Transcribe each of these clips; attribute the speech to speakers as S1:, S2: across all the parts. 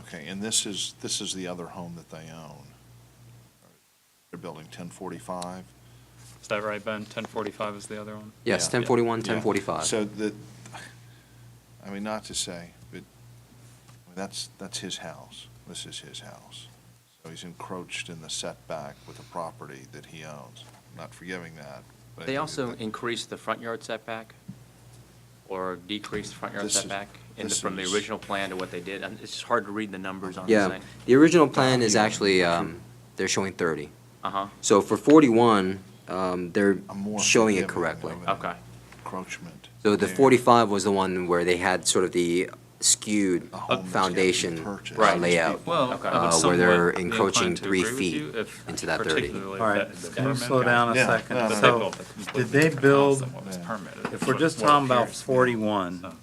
S1: Okay, and this is, this is the other home that they own. They're building 1045?
S2: Is that right, Ben? 1045 is the other one?
S3: Yes,
S1: Yeah.
S3: 1041,
S1: Yeah.
S3: 1045.
S1: So the, I mean, not to say, but that's, that's his house. This is his house. So he's encroached in the setback with a property that he owns. Not forgiving that, but. I
S4: They
S1: think
S4: also
S1: that-
S4: increased the front yard setback, or decreased the front yard
S1: This is-
S4: setback, in the-
S1: this
S4: from the
S1: is-
S4: original plan to what they did, and it's just hard to read the numbers on the
S3: Yeah,
S4: thing.
S3: the original plan is actually, um, they're showing 30.
S4: Uh-huh,
S3: So for 41, um, they're
S1: I'm more
S3: showing it
S1: forgiving
S3: correctly.
S1: of an
S4: okay,
S1: Encroachment.
S3: So the
S1: there.
S3: 45 was the one where they had sort of the skewed
S1: A home that's gotta be
S3: foundation
S1: purchased.
S3: uh,
S4: Right.
S3: layout.
S2: Well,
S4: Okay.
S2: I would
S4: Uh,
S3: where they're
S2: somewhat be
S3: encroaching
S2: inclined to
S3: three
S2: agree with
S3: feet
S2: you if
S3: into that 30.
S2: particularly
S5: All right,
S2: that the
S5: can you
S2: permit
S5: slow down a
S1: Yeah,
S2: guy-
S1: no,
S5: second?
S2: that they
S5: So,
S2: built it
S5: did they
S2: completely
S5: build,
S2: different house than what was
S1: Yeah.
S2: permitted.
S5: if
S2: That's
S5: we're
S2: what-
S5: just
S2: what
S5: talking about
S2: appears. So,
S5: forty-one,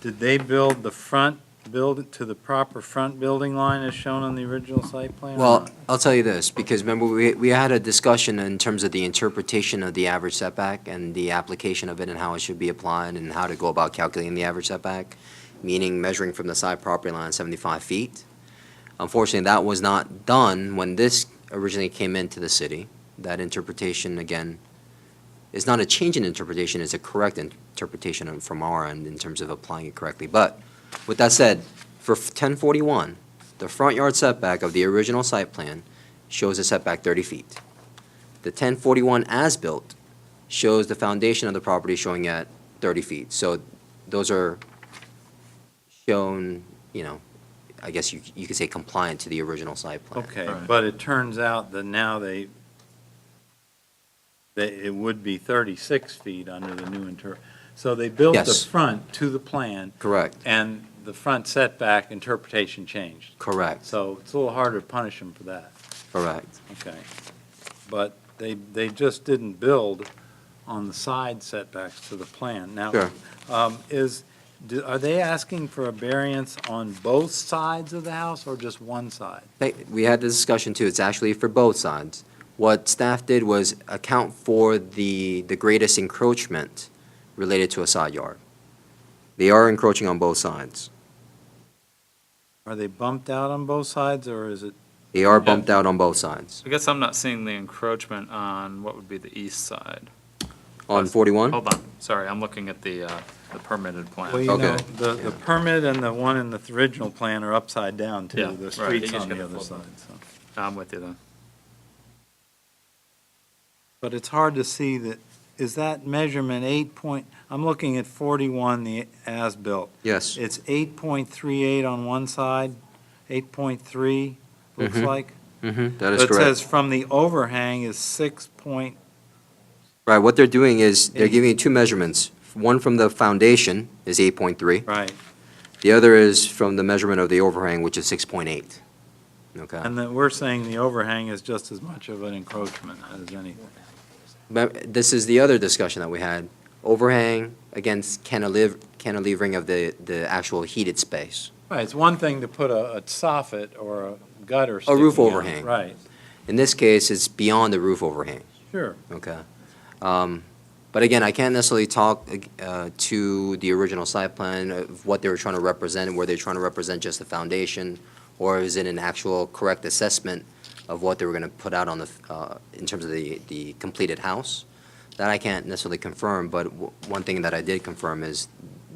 S5: did they build the front, build it to the proper front building line as shown on the original site plan? or
S3: Well,
S5: not?
S3: I'll tell you this, because remember, we, we had a discussion in terms of the interpretation of the average setback and the application of it and how it should be applied and how to go about calculating the average setback, meaning measuring from the side property line seventy-five feet. Unfortunately, that was not done when this originally came into the city. That interpretation, again, is not a change in interpretation, it's a correct interpretation on- from our end in terms of applying it correctly. But with that said, for ten forty-one, the front yard setback of the original site plan shows a setback 30 feet. The 1041 as-built shows the foundation of the property showing at 30 feet. So those are shown, you know, I guess you, you could say compliant to the original site plan.
S5: Okay,
S2: Right.
S5: but it turns out that now they, that it would be thirty-six feet under the new inter, so they built the
S3: Yes.
S5: front to the plan,
S3: Correct,
S5: and the front setback interpretation changed.
S3: correct,
S5: So it's a little harder to punish them for that.
S3: correct.
S5: Okay. But they, they just didn't build on the side setbacks to the plan. Now,
S3: Sure.
S5: um, is, do- are they asking for a variance on both sides of the house or just one side?
S3: They- We had the discussion too, it's actually for both sides. What staff did was account for the, the greatest encroachment related to a side yard. They are encroaching on both sides.
S5: Are they bumped out on both sides or is it,
S3: They are bumped out on both sides.
S2: I guess I'm not seeing the encroachment on what would be the east side.
S3: On 41?
S5: Oh.
S2: Hold on, sorry, I'm looking at the, uh, the permitted plan.
S5: well, you know,
S3: Okay.
S5: the, the permit and the one in the original plan are upside down
S2: Yeah,
S5: too. The
S2: right.
S5: street's
S2: You just
S5: on the
S2: gotta
S5: other
S2: flip
S5: side,
S2: them.
S5: so.
S2: I'm with you then.
S5: But it's hard to see that, is that measurement eight point, I'm looking at forty-one, the as-built.
S3: Yes.
S5: It's eight point three eight on one side, eight point three, looks
S3: Mhm.
S5: like.
S3: Mhm, That is
S5: But It says
S3: correct.
S5: from the overhang is six point,
S3: Right, what they're doing is, they're
S5: Eight.
S3: giving you two measurements. One from the foundation is 8.3.
S5: right,
S3: The other is from the measurement of the overhang, which is 6.8. Okay?
S5: and then we're saying the overhang is just as much of an encroachment as anything.
S3: But this is the other discussion that we had, overhang against cantilever, cantilevering of the, the actual heated space.
S5: Right, it's one thing to put a, a soffit or a gutter
S3: A roof
S5: sticking out,
S3: overhang.
S5: Right,
S3: In this case, it's beyond the roof overhang,
S5: sure.
S3: okay? Um, But again, I can't necessarily talk uh, to the original site plan of what they were trying to represent, were they trying to represent just the foundation? Or is it an actual correct assessment of what they were going to put out on the, uh, in terms of the, the completed house? That I can't necessarily confirm, but w- one thing that I did confirm is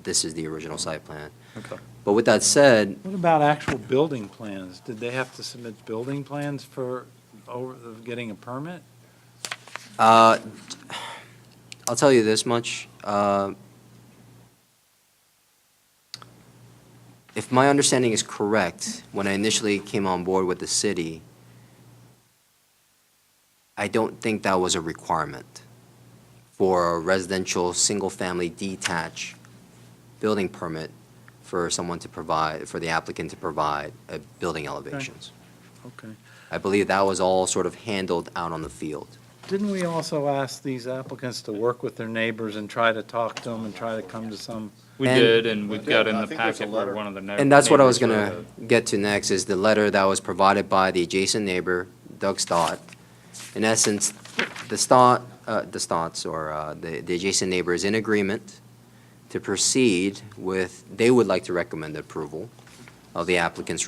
S3: this is the original site plan.
S5: Okay.
S3: But with that said,
S5: What about actual building plans? Did they have to submit building plans for over, of getting a permit?
S3: uh, I'll tell you this much. uh, If my understanding is correct, when I initially came on board with the city, I don't think that was a requirement for a residential, single-family detached building permit for someone to provide, for the applicant to provide uh, building elevations.
S5: Okay.
S3: I believe that was all sort of handled out on the field.
S5: Didn't we also ask these applicants to work with their neighbors and try to talk to them and try to come to some?
S2: We
S3: And-
S2: did, and we got in
S1: I
S2: the
S1: think there's a
S2: packet where
S1: letter.
S2: one of the.
S3: And that's what I was
S2: neighbors wrote
S3: gonna get to next, is the letter that was provided by the adjacent neighbor, Doug Stott. In essence, the Stott, uh, the Stotts, or, uh, the, the adjacent neighbor is in agreement to proceed with, they would like to recommend approval of the applicant's